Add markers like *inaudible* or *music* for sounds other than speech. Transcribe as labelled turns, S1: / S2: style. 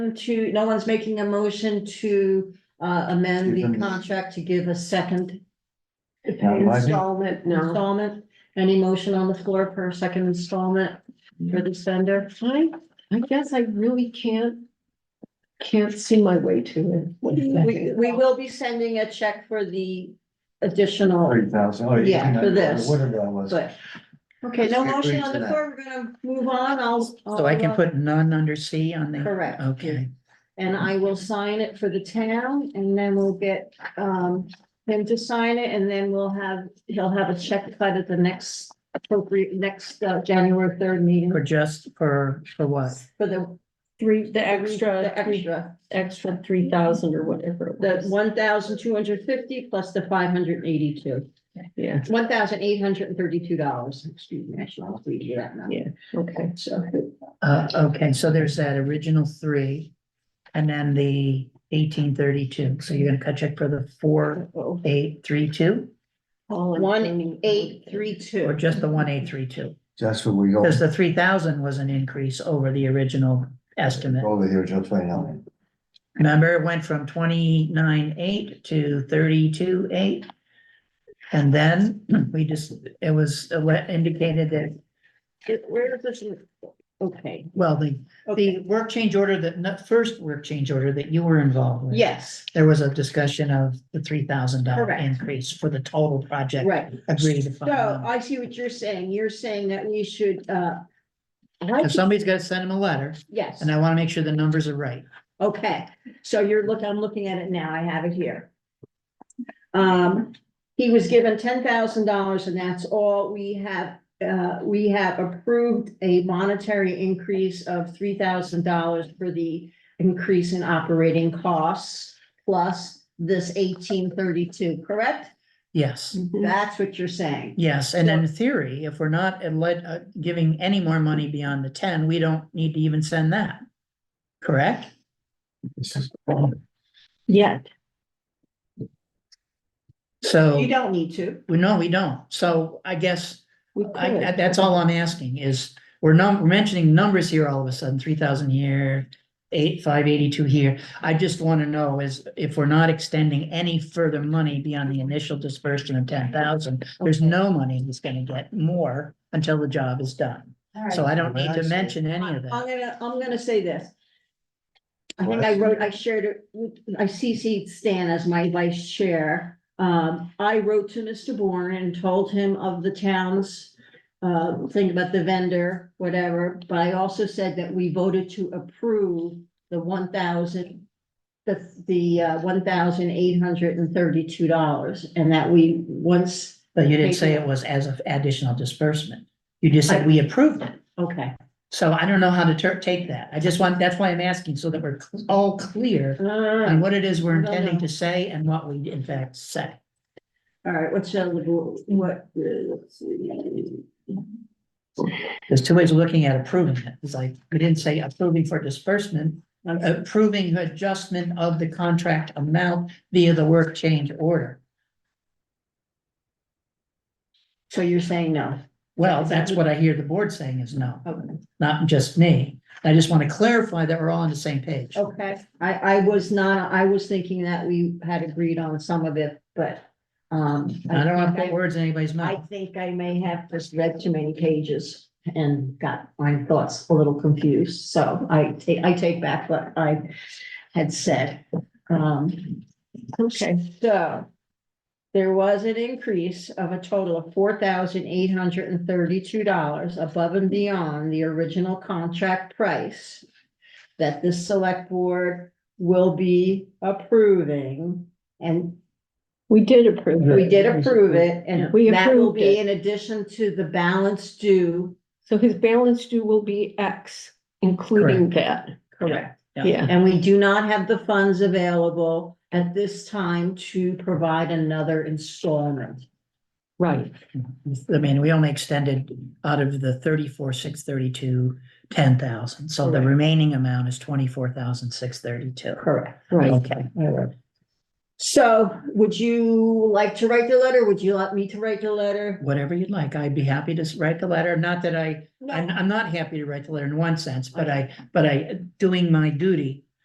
S1: to, no one's making a motion to uh amend the
S2: Even-
S1: contract to give a second
S2: Not my-
S1: installment, installment. Any motion on the floor for a second installment for this vendor?
S3: I, I guess I really can't, can't see my way to it. What do you think?
S1: We, we will be sending a check for the additional,
S2: Thirty thousand, oh,
S1: Yeah,
S2: yeah.
S1: for this.
S2: Whatever that was.
S1: but. Okay, no motion on the
S2: Agreed to that.
S1: floor, we're gonna move on, I'll. uh,
S4: So I can put Oh. none under C on the,
S1: Correct.
S4: okay.
S1: And I will sign it for the town and then we'll get um him to sign it and then we'll have, he'll have a check cut at the next appropriate, next uh January third meeting
S4: For just, for, for what?
S1: for the.
S3: Three, the extra,
S1: The extra,
S3: extra three thousand or whatever it
S1: the
S3: was.
S1: one thousand two hundred fifty plus the five hundred eighty-two,
S3: Yeah,
S1: one thousand eight hundred and thirty-two dollars, excuse me, I should have read you that number.
S3: Yeah. okay.
S1: So,
S4: Uh, okay, so there's that original three. And then the eighteen thirty-two, so you're gonna cut check for the four,
S3: Uh-oh.
S4: eight, three, two,
S3: All in
S1: One,
S3: favor.
S1: eight, three,
S4: or
S1: two,
S4: just the one, eight, three, two?
S2: That's what we go
S4: Because the three thousand was an increase over the original estimate.
S2: over here till twenty-nine.
S4: Remember, it went from twenty-nine, eight to thirty-two, eight. And then *clears throat* we just, it was indicated that,
S1: where is this? Okay,
S4: well, the
S1: okay,
S4: The work change order that, not first work change order that you were involved with.
S1: yes,
S4: There was a discussion of the three thousand dollar
S1: Correct.
S4: increase for the total project.
S1: right.
S4: Agreed
S1: So uh,
S4: upon.
S1: I see what you're saying. You're saying that we should, uh,
S4: If somebody's gotta send them a letter,
S1: yes,
S4: and I wanna make sure the numbers are right.
S1: okay. So you're looking, I'm looking at it now. I have it here. Um, he was given ten thousand dollars and that's all we have. Uh, we have approved a monetary increase of three thousand dollars for the increase in operating costs plus this eighteen thirty-two, correct?
S4: Yes,
S3: Mhm.
S1: That's what you're saying.
S4: yes, and in theory, if we're not uh, let, uh, giving any more money beyond the ten, we don't need to even send that. Correct?
S2: This is-
S3: Yet,
S1: You
S4: So,
S1: don't need to.
S4: we no, we don't. So I guess
S3: we
S4: I, I-
S3: could.
S4: that's all I'm asking is, we're num, we're mentioning numbers here all of a sudden, three thousand here, eight, five eighty-two here. I just wanna know is if we're not extending any further money beyond the initial dispersion of ten thousand, there's
S3: Okay.
S4: no money that's gonna get more until the job is done. So I don't need to mention any of
S1: I'm gonna,
S4: that.
S1: I'm gonna say this. I think I wrote, I shared it, with- I CC'd Stan as my vice chair. Um, I wrote to Mr. Bourne and told him of the town's uh, thing about the vendor, whatever, but I also said that we voted to approve the one thousand the, the uh, one thousand eight hundred and thirty-two dollars, and that we, once,
S4: But you didn't say it was as of additional disbursement. You just said we approved it.
S1: okay.
S4: So I don't know how to ter- take that. I just want, that's why I'm asking so that we're cl- all clear
S1: *laughs*
S4: on
S1: All
S4: what it is we're
S1: No,
S4: intending
S1: no.
S4: to say and what we in fact say.
S1: right, what's the, what, uh, let's see.
S4: There's two ways of looking at approving it. It's like, we didn't say approving for disbursement, approving adjustment of the contract amount via the work change order.
S1: So you're saying no?
S4: Well, that's what I hear the board saying is no,
S1: Okay.
S4: not just me. I just want to clarify that we're all on the same page.
S1: Okay, I, I was not, I was thinking that we had agreed on some of it, but, um.
S4: I don't want to
S1: think
S4: put words in anybody's
S1: I I
S4: mouth.
S1: think I may have just read too many pages and got my thoughts a little confused, so I take, I take back what I had said. Um,
S3: Okay,
S1: so there was an increase of a total of four thousand eight hundred and thirty-two dollars above and beyond the original contract price that this select board will be approving. And
S3: we did approve. it.
S1: we did approve it and
S3: We
S1: that will
S3: approved
S1: be
S3: it.
S1: in addition to the balance due.
S3: So his balance due will be X, including that.
S4: Correct.
S3: Yeah,
S1: And we do not have the funds available at this time to provide another installment.
S3: right.
S4: I mean, we only extended out of the thirty-four, six thirty-two, ten thousand. So the
S1: Correct.
S4: remaining amount is twenty-four thousand, six thirty-two.
S1: Correct.
S3: Right.
S4: Okay.
S1: So would you like to write the letter? Would you like me to write the letter?
S4: Whatever you'd like. I'd be happy to s- write the letter. Not that I, I'm,
S1: No.
S4: I'm not happy to write the letter in one sense, but I, but I, doing my duty